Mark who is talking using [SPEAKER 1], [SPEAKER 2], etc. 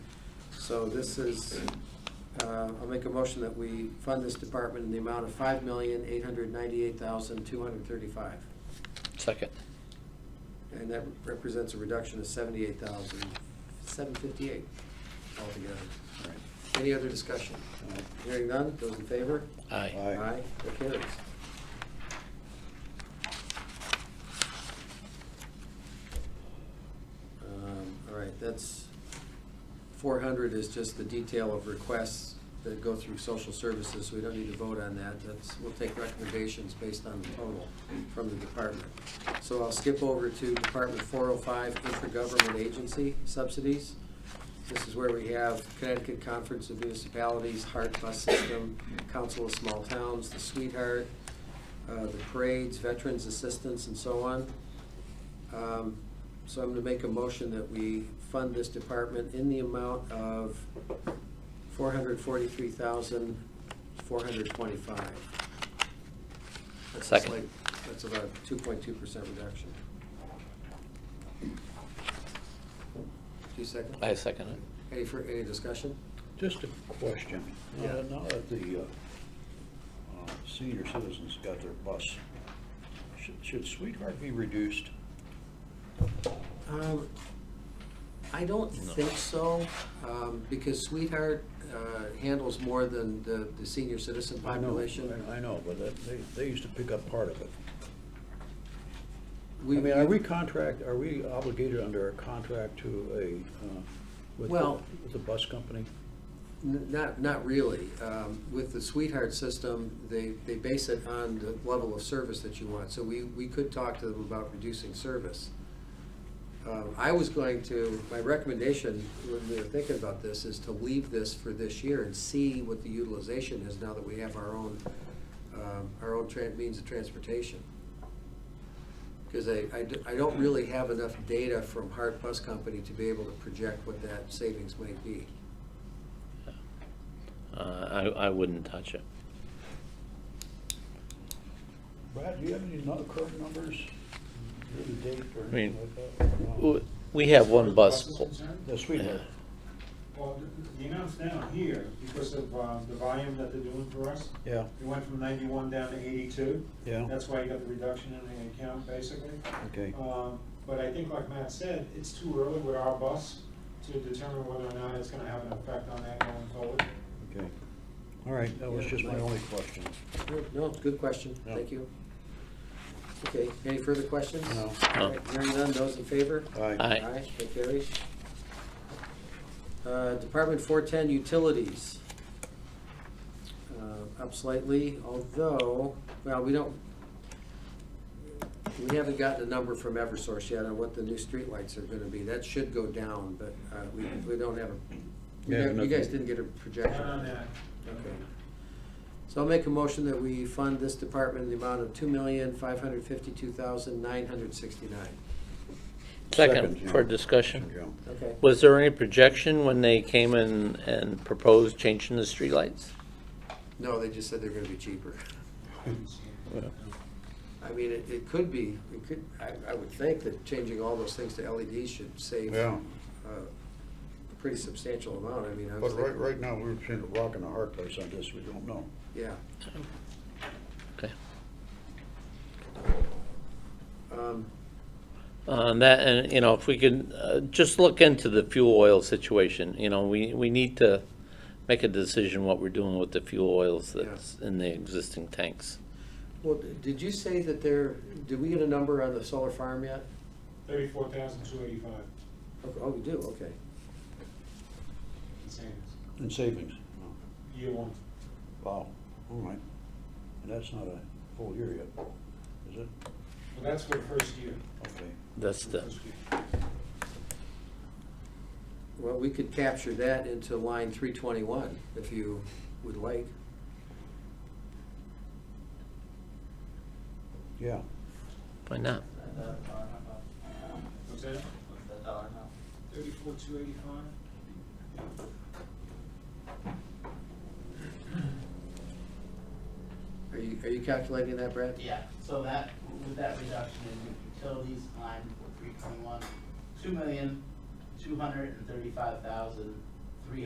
[SPEAKER 1] So this is, uh, I'll make a motion that we fund this department in the amount of five million, eight hundred ninety-eight thousand, two hundred thirty-five.
[SPEAKER 2] Second.
[SPEAKER 1] And that represents a reduction of seventy-eight thousand, seven fifty-eight altogether.
[SPEAKER 3] All right.
[SPEAKER 1] Any other discussion? Hearing none, those in favor?
[SPEAKER 2] Aye.
[SPEAKER 3] Aye.
[SPEAKER 1] that carries. Um, All right, that's, four hundred is just the detail of requests that go through social services, so we don't need to vote on that. That's, we'll take recommendations based on the total from the department. So I'll skip over to Department four oh five, intergovernment agency subsidies. This is where we have Connecticut Conference of Municipalities, Heart Bus System, Council of Small Towns, the Sweetheart, uh, the parades, veterans assistance, and so on. Um, So I'm going to make a motion that we fund this department in the amount of four hundred forty-three thousand, four hundred twenty-five.
[SPEAKER 2] Second.
[SPEAKER 1] That's about two point two percent reduction. Do you second?
[SPEAKER 2] I second it.
[SPEAKER 1] Any, fur- any discussion?
[SPEAKER 3] Just a question. Uh,
[SPEAKER 1] Yeah.
[SPEAKER 3] Now that the uh, uh, senior citizens got their bus, should- should Sweetheart be reduced?
[SPEAKER 1] Um, I don't think so, um, because Sweetheart, uh, handles more than the, the senior citizen
[SPEAKER 3] I know,
[SPEAKER 1] population.
[SPEAKER 3] I- I know, but that- they, they used to pick up part of it. I
[SPEAKER 1] We-
[SPEAKER 3] mean, are we contract, are we obligated under a contract to a, uh, with the-
[SPEAKER 1] Well-
[SPEAKER 3] with the bus company?
[SPEAKER 1] N- Not, not really. Um, With the Sweetheart system, they, they base it on the level of service that you want. So we, we could talk to them about reducing service. Um, I was going to, my recommendation when we were thinking about this is to leave this for this year and see what the utilization is now that we have our own, um, our own tran- means of transportation. Because I, I d- I don't really have enough data from Hart Bus Company to be able to project what that savings might be.
[SPEAKER 2] Uh, I, I wouldn't touch it.
[SPEAKER 3] Brad, do you have any other current numbers, year to date or
[SPEAKER 2] I mean,
[SPEAKER 3] anything like that?
[SPEAKER 2] W- We have one bus.
[SPEAKER 4] Buses
[SPEAKER 2] pull-
[SPEAKER 4] concerned?
[SPEAKER 3] The Sweetheart,
[SPEAKER 4] Well, the- the amount's down here because of uh, the volume that they're doing for us.
[SPEAKER 3] yeah,
[SPEAKER 4] It went from ninety-one down to eighty-two.
[SPEAKER 3] yeah,
[SPEAKER 4] That's why you got the reduction in the account, basically.
[SPEAKER 3] okay.
[SPEAKER 4] Um, But I think like Matt said, it's too early with our bus to determine whether or not it's gonna have an effect on that going forward.
[SPEAKER 3] Okay. All right, that was just my only question.
[SPEAKER 1] No, it's a good question,
[SPEAKER 3] Yeah.
[SPEAKER 1] thank you. Okay, any further questions?
[SPEAKER 3] No.
[SPEAKER 2] No.
[SPEAKER 1] All right, Hearing none, those in favor?
[SPEAKER 2] Aye.
[SPEAKER 1] Aye, that carries. Uh, Department four-ten, utilities. Uh, Up slightly, although, well, we don't, we haven't gotten a number from Eversource yet on what the new streetlights are gonna be. That should go down, but uh, we, we don't have
[SPEAKER 3] Yeah,
[SPEAKER 1] a, you
[SPEAKER 3] nothing.
[SPEAKER 1] guys didn't get a projection.
[SPEAKER 4] Not on that.
[SPEAKER 1] Okay. So I'll make a motion that we fund this department in the amount of two million, five hundred fifty-two thousand, nine hundred sixty-nine.
[SPEAKER 2] Second
[SPEAKER 3] Jim.
[SPEAKER 2] for discussion.
[SPEAKER 3] Jim.
[SPEAKER 1] Okay.
[SPEAKER 2] Was there any projection when they came in and proposed changing the streetlights?
[SPEAKER 1] No, they just said they're gonna be cheaper. I mean, it, it could be, it could, I, I would think that changing all those things to LEDs should save
[SPEAKER 3] Yeah.
[SPEAKER 1] uh, a pretty substantial amount. I mean, I was
[SPEAKER 3] But right,
[SPEAKER 1] thinking,
[SPEAKER 3] right now, we're between a rock and a hard place on this, we don't know.
[SPEAKER 1] yeah.
[SPEAKER 2] Okay.
[SPEAKER 1] Um,
[SPEAKER 2] On that, Uh, and, you know, if we could uh, just look into the fuel oil situation, you know, we, we need to make a decision what we're doing with the fuel oils
[SPEAKER 1] Yeah.
[SPEAKER 2] that's in the existing tanks.
[SPEAKER 1] Well, did you say that there, did we get a number on the solar farm yet?
[SPEAKER 4] Thirty-four thousand two eighty-five
[SPEAKER 1] Oh, Oh, we do, okay.
[SPEAKER 4] in savings,
[SPEAKER 3] In savings.
[SPEAKER 4] year one.
[SPEAKER 3] Wow, all right. And that's not a full year yet, is it?
[SPEAKER 4] Well, that's for the first year.
[SPEAKER 3] Okay.
[SPEAKER 2] That's the,
[SPEAKER 4] First year.
[SPEAKER 1] Well, we could capture that into line three twenty-one, if you would like.
[SPEAKER 3] Yeah,
[SPEAKER 2] why not?
[SPEAKER 4] What's that? Thirty-four two eighty-five?
[SPEAKER 1] Are you, are you calculating that, Brad?
[SPEAKER 5] Yeah, so that, with that reduction in utilities, line three twenty-one, two million, two hundred and thirty-five thousand,